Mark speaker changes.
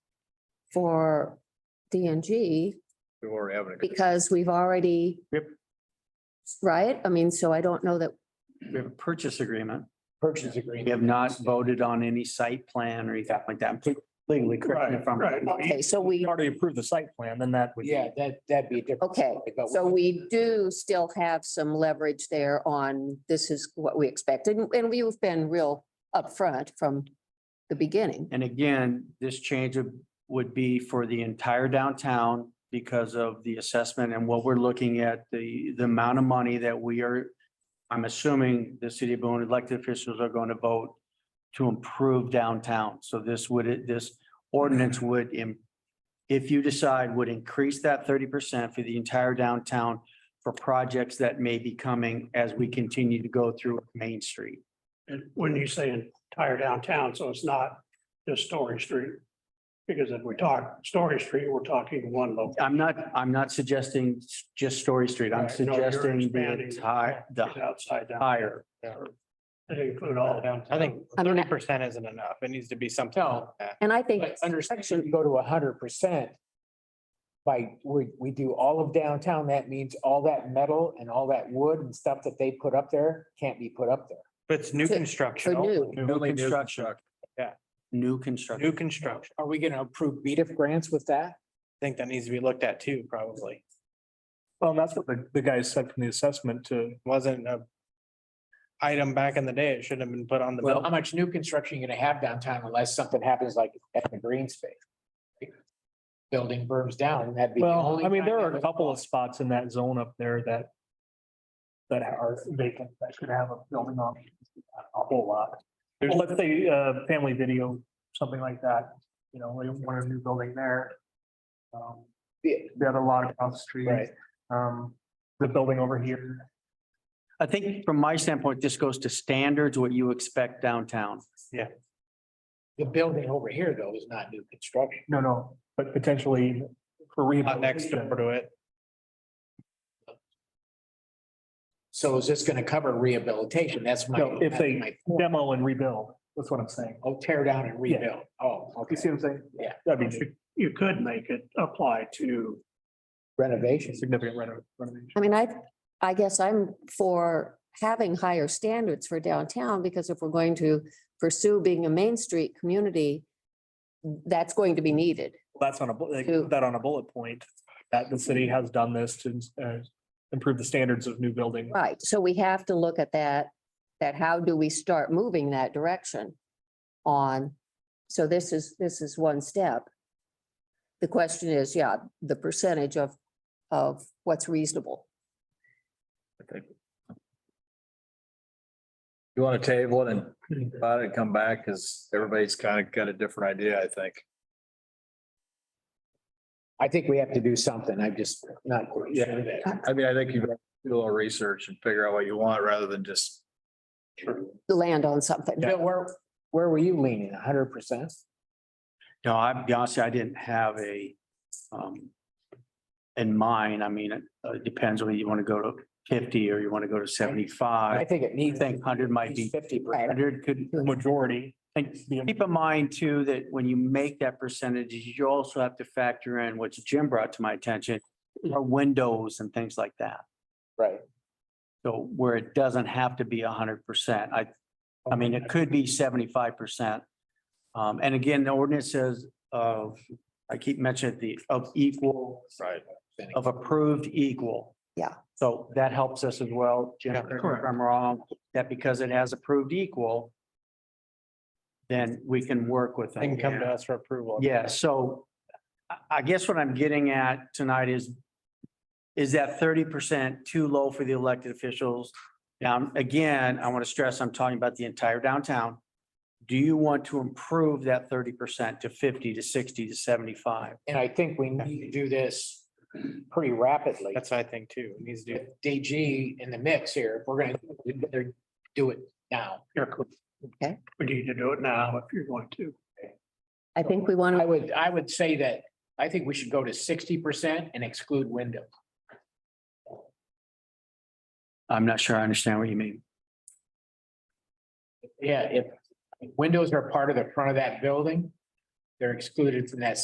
Speaker 1: for DNG
Speaker 2: We already have it.
Speaker 1: because we've already.
Speaker 3: Yep.
Speaker 1: Right? I mean, so I don't know that,
Speaker 3: We have a purchase agreement.
Speaker 4: purchase
Speaker 3: We
Speaker 4: agreement.
Speaker 3: have not voted on any site plan or anything like that. I'm Completely correct me if I'm
Speaker 5: Right, right.
Speaker 1: okay, so we,
Speaker 5: Already approved the site plan, then that would.
Speaker 4: Yeah, that, that'd be a different.
Speaker 1: Okay,
Speaker 4: topic, but
Speaker 1: so we do still have some leverage there on this is what we expected. And- And we've been real upfront from the beginning.
Speaker 3: And again, this change would- would be for the entire downtown because of the assessment and what we're looking at, the, the amount of money that we are, I'm assuming the city of Boone elected officials are going to vote to improve downtown. So this would, this ordinance would, im- if you decide, would increase that thirty percent for the entire downtown for projects that may be coming as we continue to go through Main Street.
Speaker 5: And when you say entire downtown, so it's not just Story Street. Because if we talk Story Street, we're talking one local.
Speaker 3: I'm not, I'm not suggesting s- just Story Street. I'm
Speaker 5: Right, no, you're
Speaker 3: suggesting the
Speaker 5: expanding
Speaker 3: entire, the
Speaker 5: It's outside downtown.
Speaker 3: higher.
Speaker 5: They include all downtown.
Speaker 6: I think
Speaker 1: I mean,
Speaker 6: thirty
Speaker 1: I-
Speaker 6: percent isn't enough. It needs to be something. like that.
Speaker 1: And I think
Speaker 4: But understand, if you go to hundred percent. By, we, we do all of downtown, that means all that metal and all that wood and stuff that they put up there can't be put up there.
Speaker 6: But it's new
Speaker 1: To-
Speaker 6: construction.
Speaker 1: for new.
Speaker 6: only.
Speaker 3: New construction.
Speaker 6: Yeah.
Speaker 3: New
Speaker 6: New
Speaker 3: construction.
Speaker 6: construction.
Speaker 4: Are we gonna approve BDIF grants with that?
Speaker 6: I think that needs to be looked at too, probably.
Speaker 7: Well, and that's what the, the guy said from the assessment to,
Speaker 6: Wasn't a item back in the day. It shouldn't have been put on the
Speaker 4: Well, how
Speaker 6: bill.
Speaker 4: much new construction you gonna have downtown unless something happens like at the green space? Building burns down, that'd be. the
Speaker 7: well,
Speaker 4: only
Speaker 7: I mean,
Speaker 4: time
Speaker 7: there
Speaker 4: that
Speaker 7: are a
Speaker 4: would
Speaker 7: couple
Speaker 4: fall.
Speaker 7: of spots in that zone up there that that are vacant, that should have a building on it, a whole lot. Well, Let's say, uh, family video, something like that, you know, we want a new building there. Um,
Speaker 4: Yeah.
Speaker 7: The other lot across the street.
Speaker 4: Right.
Speaker 7: Um, the building over here.
Speaker 3: I think from my standpoint, this goes to standards, what you expect downtown.
Speaker 4: The building over here though is not new construction.
Speaker 7: No, no, but potentially for
Speaker 6: Not next door
Speaker 7: rehabilitation.
Speaker 6: to it.
Speaker 4: So is this gonna cover rehabilitation? That's my.
Speaker 7: No, if
Speaker 4: that's
Speaker 7: they
Speaker 4: my point.
Speaker 7: Demo and rebuild, that's what I'm saying.
Speaker 4: Oh, tear down and
Speaker 7: Yeah.
Speaker 4: rebuild. Oh, okay.
Speaker 7: You see what I'm saying?
Speaker 4: Yeah.
Speaker 7: That'd be
Speaker 5: You could make it apply to
Speaker 4: Renovation.
Speaker 7: significant reno- renovation.
Speaker 1: I mean, I, I guess I'm for having higher standards for downtown because if we're going to pursue being a Main Street community, that's going to be needed.
Speaker 7: That's on a, bu- like,
Speaker 1: Who-
Speaker 7: put that on a bullet point, that the city has done this to uh, improve the standards of new building.
Speaker 1: Right, so we have to look at that, that how do we start moving that direction on, so this is, this is one step. The question is, yeah, the percentage of, of what's reasonable.
Speaker 2: You want to table it and think about it and come back because everybody's kind of got a different idea, I think.
Speaker 4: I think we have to do something. I'm just not quite sure that.
Speaker 2: I mean, I think you do a little research and figure out what you want rather than just.
Speaker 1: Land on something.
Speaker 4: Bill, where, where were you leaning? hundred percent?
Speaker 3: No, I'll be honest, I didn't have a, um, in mind. I mean, it uh, depends whether you want to go to fifty or you want to go to
Speaker 4: I
Speaker 3: seventy-five.
Speaker 4: think it
Speaker 3: I
Speaker 4: needs.
Speaker 3: think hundred might be,
Speaker 4: Fifty percent.
Speaker 3: hundred could,
Speaker 7: Majority.
Speaker 3: and Keep in mind too, that when you make that percentage, you also have to factor in what Jim brought to my attention, are windows and things like that.
Speaker 4: Right.
Speaker 3: So where it doesn't have to be hundred percent, I, I mean, it could be seventy-five percent. Um, and again, the ordinance says of, I keep mentioning the, of equal,
Speaker 2: Right.
Speaker 3: of approved equal.
Speaker 1: Yeah.
Speaker 3: So that helps us as well, Jim, correct me if I'm wrong, that because it has approved equal, then we can work with
Speaker 6: They can
Speaker 3: them.
Speaker 6: come to us for approval.
Speaker 3: Yeah, so I, I guess what I'm getting at tonight is, is that thirty percent too low for the elected officials? Now, again, I want to stress, I'm talking about the entire downtown. Do you want to improve that thirty percent to fifty to sixty to seventy-five?
Speaker 4: And I think we need to do this pretty rapidly.
Speaker 6: That's what I think too. It needs to do.
Speaker 4: With DG in the mix here. If We're gonna, we better do it now.
Speaker 5: We need to do it now if you're going to.
Speaker 1: I think we want
Speaker 4: I
Speaker 1: to,
Speaker 4: would, I would say that I think we should go to sixty percent and exclude windows.
Speaker 3: I'm not sure I understand what you mean.
Speaker 4: Yeah, if windows are part of the front of that building, they're excluded from that